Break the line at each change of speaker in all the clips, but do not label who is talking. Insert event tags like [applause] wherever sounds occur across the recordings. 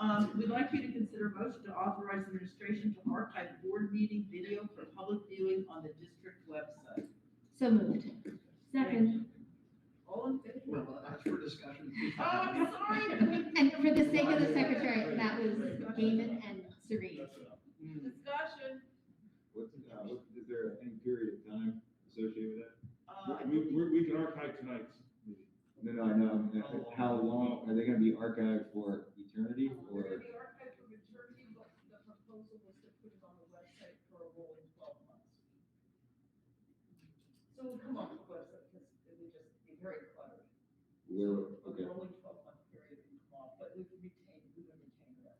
Um, we'd like you to consider a motion to authorize administration to archive board meeting video for public viewing on the district website.
So moved. Second.
All in favor?
Well, that's for discussion.
Oh, I'm sorry.
And for the sake of the secretary, that was Damon and Serene.
That's enough.
Discussion.
What's, uh, what, is there any period of time associated with
Uh,
We, we, we can archive tonight's meeting.
that? No, no, I know, Uh, how long, are they gonna be archived for eternity
We're
or?
gonna be archived for maturity, but the proposal was to put it on the website for a rolling twelve months. So we'll come on the website, because it would just be very cluttered.
Where,
A
okay.
rolling twelve month period would come on, but we can retain, we can retain that.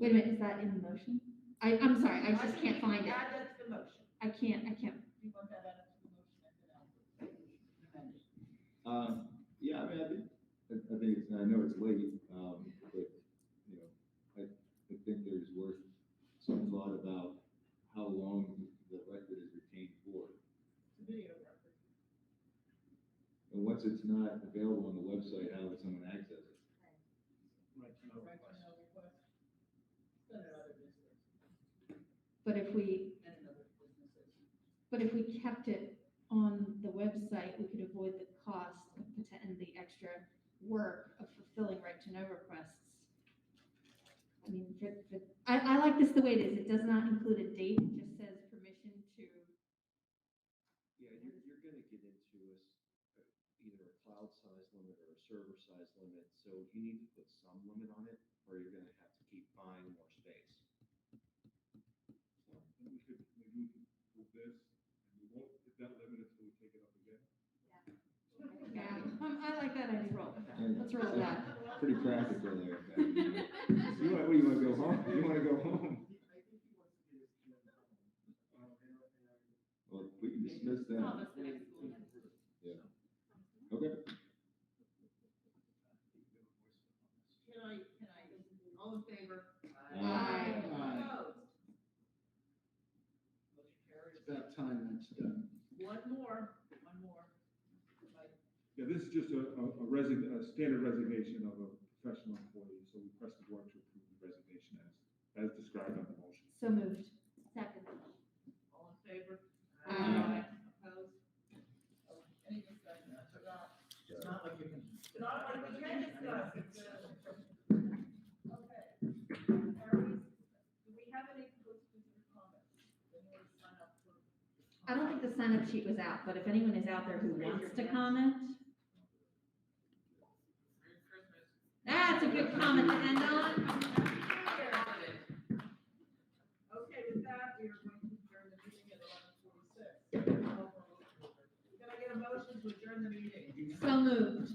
Wait a minute, is that in the motion? I, I'm sorry, I just can't find it.
Add that to the motion.
I can't, I can't.
You want that added to the motion, and then I'll amend it.
Um, yeah, I mean, I think, I, I think it's, I know it's late, um, but, you know, I, I think there's worth some thought about how long the record is retained for.
It's a video record.
And once it's not available on the website, how would someone access it?
Right, no
Right,
request.
no request. Then another business,
But if we,
and another businesses.
but if we kept it on the website, we could avoid the cost of, poten- and the extra work of fulfilling right to know requests. I mean, for, for, I, I like this the way it is. It does not include a date, it just says permission to.
Yeah, you're, you're gonna get into a s- uh either a cloud size limit or a server size limit, so you need to put some limit on it, or you're gonna have to keep buying more space.
So We could, maybe we could do this, and we won't, if that limit until we take it up again.
Yeah, um, I like that idea. Roll with that. Let's roll with that.
Pretty practical
[laughs]
there. Pat. You want, what, you wanna go home? You wanna go home?
He- I think he wants to get his kid out of it. Um, and I- and I-
Well, we can dismiss that.
Thomas, the next one.
Okay,
Can I, can I, all in favor?
Aye.
Aye.
Opposed? Motion carries.
It's about time that's done.
One more, one more. Like,
Yeah, this is just a, a a resign, a standard resignation of a professional employee, so we request the board to approve the resignation as, as described on the motion.
So moved. Second.
All in favor?
Aye.
Opposed? Oh, Any discussion? I forgot.
It's not like you can.
Not like we can discuss Okay. Are we, do we have any closed-ended comments? Anyone sign up for?
I don't think the sign-up sheet was out, but if anyone is out there who wants to comment. That's a good comment to end on.
Okay, with that, we are going to adjourn the meeting at eleven forty-six. Can I get a motion to adjourn the meeting?
So moved.